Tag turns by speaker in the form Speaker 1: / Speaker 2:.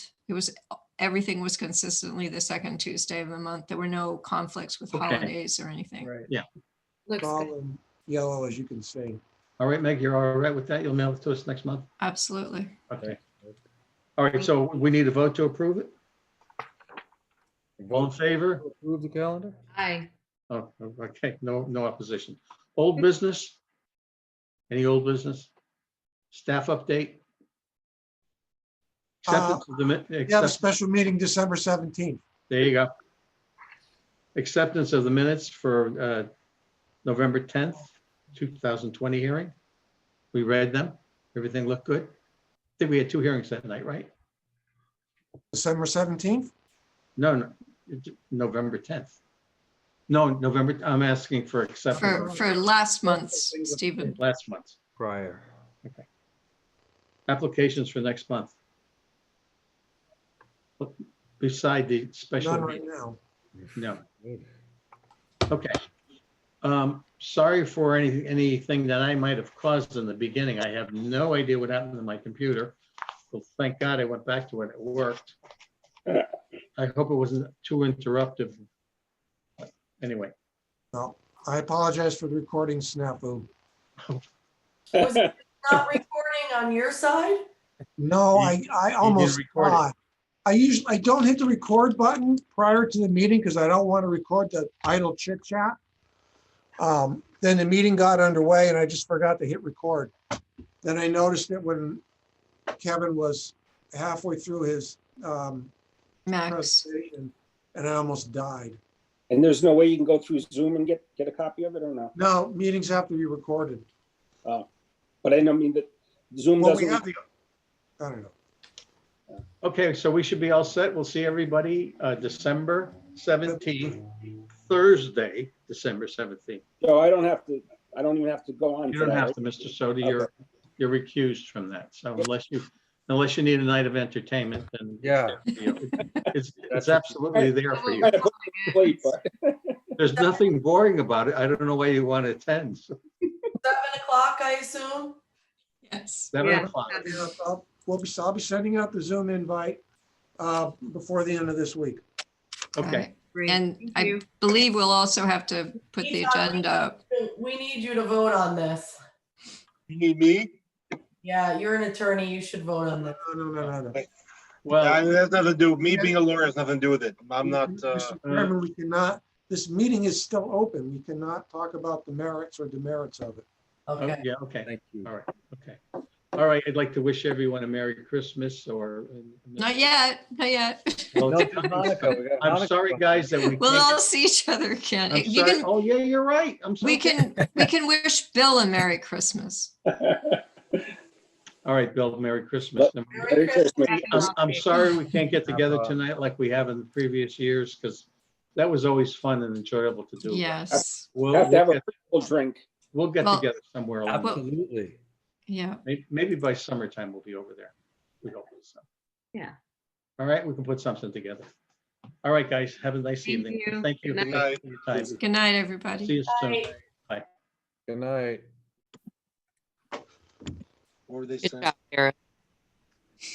Speaker 1: It was, everything was consistently the second Tuesday of the month. There were no conflicts with
Speaker 2: Okay.
Speaker 1: holidays or anything.
Speaker 3: Right,
Speaker 4: Looks
Speaker 3: all
Speaker 4: good.
Speaker 3: in yellow as you can see.
Speaker 2: All right, Meg, you're all right with that? You'll mail it to us next month?
Speaker 1: Absolutely.
Speaker 2: Okay. All right, so we need a vote to approve it? All in favor?
Speaker 5: Approve the calendar?
Speaker 4: Aye.
Speaker 2: Oh, okay, no, no opposition. Old business? Any old business? Staff update? Acceptance of the min-
Speaker 3: We have a
Speaker 2: accept-
Speaker 3: special meeting December 17th.
Speaker 2: There you go. Acceptance of the minutes for uh, November 10th, 2020 hearing. We read them. Everything looked good. I think we had two hearings that night, right?
Speaker 3: December 17th?
Speaker 2: No, no, it- November 10th. No, November, I'm asking for
Speaker 1: For,
Speaker 2: acceptance
Speaker 1: for last month's, Stephen.
Speaker 2: last month.
Speaker 5: Prior.
Speaker 2: Applications for next month. Beside the special
Speaker 3: None
Speaker 2: meeting.
Speaker 3: right now.
Speaker 2: No. Okay. Um, sorry for any, anything that I might have caused in the beginning. I have no idea what happened to my computer. Well, thank God I went back to it. It worked. I hope it wasn't too interruptive. But Anyway,
Speaker 3: No. I apologize for the recording snafu.
Speaker 6: Was it not recording on your side?
Speaker 3: No, I, I almost
Speaker 2: record it.
Speaker 3: died. I usually, I don't hit the record button prior to the meeting because I don't want to record the idle chit chat. Um, Then the meeting got underway and I just forgot to hit record. Then I noticed it when Kevin was halfway through his um,
Speaker 1: Max,
Speaker 3: presentation and I almost died.
Speaker 7: And there's no way you can go through Zoom and get, get a copy of it or no?
Speaker 3: No, meetings have to be recorded.
Speaker 7: But I don't mean that Zoom
Speaker 3: Well, we
Speaker 7: doesn't,
Speaker 3: have the, I don't know.
Speaker 2: okay, so we should be all set. We'll see everybody, uh, December seventeenth, Thursday, December seventeenth.
Speaker 7: no, I don't have to, I don't even have to go on.
Speaker 2: You
Speaker 7: for
Speaker 2: don't have
Speaker 7: that, right?
Speaker 2: to, Mr. Soto, you're, you're recused from that. So unless you, unless you need a night of entertainment, then
Speaker 5: Yeah.
Speaker 2: it's, it's absolutely there for you.
Speaker 7: Trying to put it away, but
Speaker 2: There's nothing boring about it. I don't know why you want to attend.
Speaker 6: Seven o'clock, I assume?
Speaker 1: yes.
Speaker 2: Seven
Speaker 4: Yeah.
Speaker 2: o'clock.
Speaker 3: Yeah, I'll- We'll be, I'll be sending out the Zoom invite uh, before the end of this week.
Speaker 2: Okay,
Speaker 4: Great.
Speaker 1: And
Speaker 4: Thank
Speaker 1: I
Speaker 4: you.
Speaker 1: believe we'll also have to put the agenda up.
Speaker 6: We need you to vote on this.
Speaker 8: You need me?
Speaker 6: Yeah, you're an attorney, you should vote on
Speaker 3: No,
Speaker 6: this.
Speaker 3: no, no, no, no.
Speaker 8: Yeah,
Speaker 2: well,
Speaker 8: It has nothing to do, me being a lawyer has nothing to do with it. I'm not,
Speaker 1: Mm-hmm.
Speaker 8: uh,
Speaker 3: Mr. Chairman, we cannot, this meeting is still open. We cannot talk about the merits or demerits of it.
Speaker 2: oh,
Speaker 6: Okay.
Speaker 2: yeah, okay,
Speaker 5: Thank you.
Speaker 2: all right, okay. All right, I'd like to wish everyone a Merry Christmas or. uh,
Speaker 1: Not yet, not yet.
Speaker 2: Well,
Speaker 5: No, to Monica, we got
Speaker 2: I'm
Speaker 5: Monica.
Speaker 2: sorry, guys, that we
Speaker 1: We'll
Speaker 2: can't.
Speaker 1: all see each other again.
Speaker 2: I'm
Speaker 1: You
Speaker 2: sorry.
Speaker 1: can,
Speaker 2: Oh, yeah, you're right. I'm sorry.
Speaker 1: we can, we can wish Bill a Merry Christmas.
Speaker 2: All right, Bill, Merry Christmas. And
Speaker 6: Merry Christmas.
Speaker 2: I'm, I'm sorry we can't get together tonight like we have in the previous years because that was always fun and enjoyable to do.
Speaker 1: Yes.
Speaker 2: We'll,
Speaker 7: Have to have
Speaker 2: we'll
Speaker 7: a
Speaker 2: get-
Speaker 7: full drink.
Speaker 2: we'll get
Speaker 1: Well-
Speaker 2: together somewhere. along the way.
Speaker 5: Absolutely.
Speaker 1: Yeah.
Speaker 2: May- Maybe by summertime we'll be over there. We hope so.
Speaker 4: Yeah.
Speaker 2: All right, we can put something together. All right, guys, have a nice
Speaker 4: Thank
Speaker 2: evening.
Speaker 4: you.
Speaker 2: Thank you.
Speaker 4: Good
Speaker 2: Thank you for your time.
Speaker 1: Good night, everybody.
Speaker 2: See you soon.
Speaker 6: Bye.
Speaker 5: Good night.
Speaker 9: Good job, Eric.